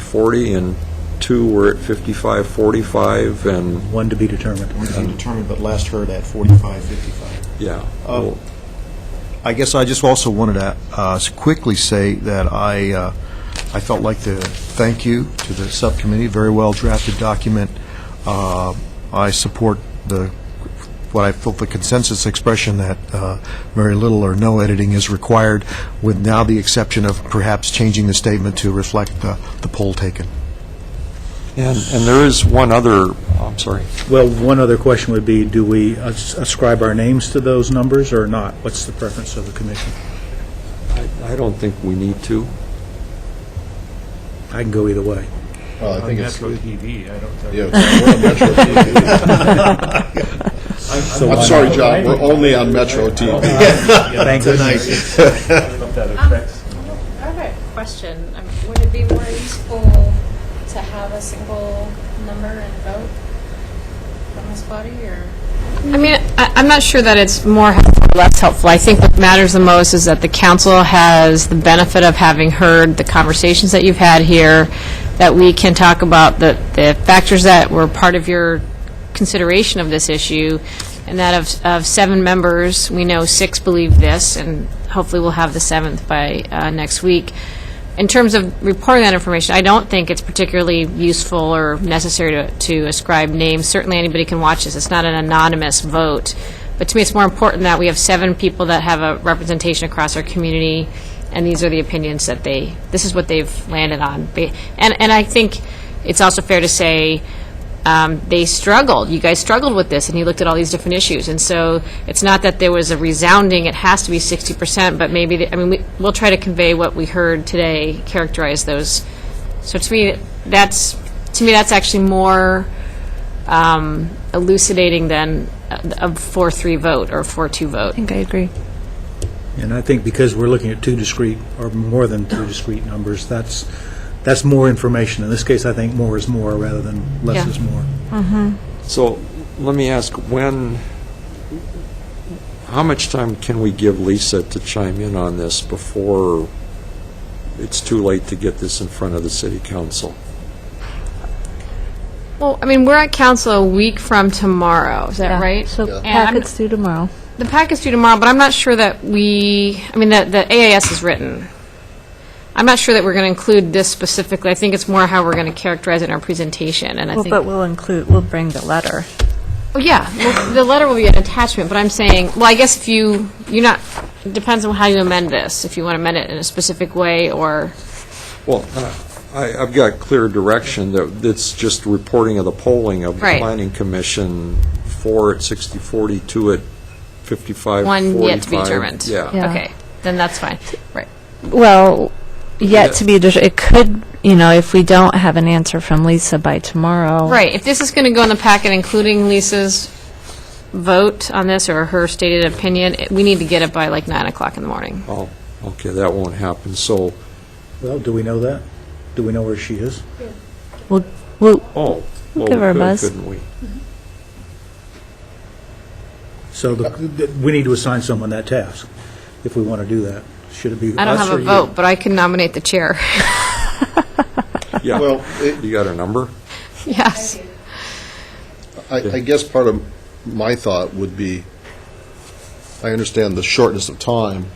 60-40, and two were at 55-45, and, One to be determined. One to be determined, but last heard at 45, 55. yeah. Um, I guess I just also wanted to uh, quickly say that I, uh, I felt like to thank you to the subcommittee, very well-drafted document. Uh, I support the, what I felt the consensus expression that uh, very little or no editing is required, with now the exception of perhaps changing the statement to reflect the the poll taken. And, and there is one other, oh, I'm sorry. Well, one other question would be, do we as- ascribe our names to those numbers or not? What's the preference of the commission? I I don't think we need to. I can go either way. Well, I think it's, Metro TV, I don't. yeah, we're on Metro TV. So I'm why sorry, not? John, we're only on Metro TV. Thank goodness. That affects. I have a question. Um, Would it be more useful to have a single number and vote from this body, or? I mean, I- I'm not sure that it's more helpful or less helpful. I think what matters the most is that the council has the benefit of having heard the conversations that you've had here, that we can talk about the the factors that were part of your consideration of this issue, and that of of seven members, we know six believe this, and hopefully we'll have the seventh by uh, next week. In terms of reporting that information, I don't think it's particularly useful or necessary to, to ascribe names. Certainly, anybody can watch this. It's not an anonymous vote. But to me, it's more important that we have seven people that have a representation across our community, and these are the opinions that they, this is what they've landed on. They- And, and I think it's also fair to say, um, they struggled. You guys struggled with this, and you looked at all these different issues. And so it's not that there was a resounding, it has to be 60%, but maybe, the- I mean, we- we'll try to convey what we heard today, characterize those. So to me, that's, to me, that's actually more um, elucidating than a a 4-3 vote or a 4-2 vote. I agree. And I think because we're looking at two discrete, or more than two discrete numbers, that's, that's more information. In this case, I think more is more rather than less Yeah. is more. So let me ask, when, how much time can we give Lisa to chime in on this before it's too late to get this in front of the city council? Well, I mean, we're at council a week from tomorrow, is that right? So And I'm- packets due tomorrow. The pack is due tomorrow, but I'm not sure that we, I mean, that the AAS is written. I'm not sure that we're going to include this specifically. I think it's more how we're going to characterize it in our presentation, and I Well, think. but we'll include, we'll bring the letter. Oh, yeah, well, the letter will be an attachment, but I'm saying, well, I guess if you, you're not, it depends on how you amend this, if you want to amend it in a specific way, or, Well, uh, I, I've got clear direction that it's just reporting of the polling of the Right. planning commission, four at 60-40, two at 55-45. one yet to be determined. Yeah. Yeah. Okay, then that's fine. Right. Well, Yeah. yet to be, det- it could, you know, if we don't have an answer from Lisa by tomorrow. Right, if this is going to go in the packet, including Lisa's vote on this, or her stated opinion, it- we need to get it by like 9 o'clock in the morning. Oh, okay, that won't happen, so, Well, do we know that? Do we know where she is? We'll, we'll, oh. well, we give her a could, buzz. Couldn't we? So the- th- we need to assign someone that task, if we want to do that. Should it be I don't us have or a you? vote, but I can nominate the chair. Yeah, Well, it- you got a number? Yes. I, I guess part of my thought would be, I understand the shortness of time,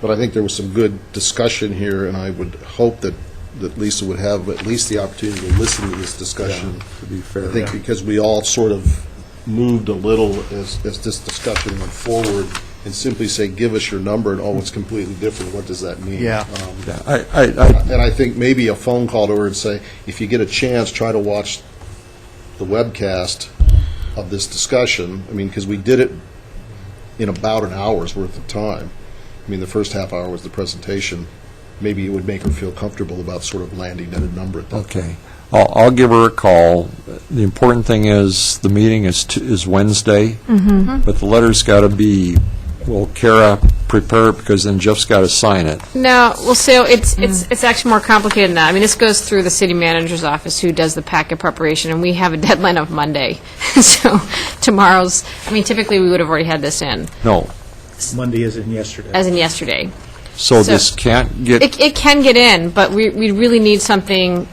but I think there was some good discussion here, and I would hope that, that Lisa would have at least the opportunity to listen to this discussion. to be fair. I think because we all sort of moved a little as, as this discussion went forward, and simply say, give us your number, and oh, it's completely different, what does that mean? Yeah. Um, Yeah, I, I, I- And I think maybe a phone call to her and say, if you get a chance, try to watch the webcast of this discussion. I mean, because we did it in about an hour's worth of time. I mean, the first half hour was the presentation. Maybe it would make her feel comfortable about sort of landing at a number at that Okay. I'll, I'll give her a call. The important thing is, the meeting is, t- is Wednesday. But the letter's got to be, will Kara prepare it, because then Jeff's got to sign it. No, well, so it's, it's, it's actually more complicated than that. I mean, this goes through the city manager's office, who does the packet preparation, and we have a deadline of Monday. So tomorrow's, I mean, typically, we would have already had this in, No. Monday is in yesterday. as in yesterday. So So- this can't get It, it can get in, but we, we really need something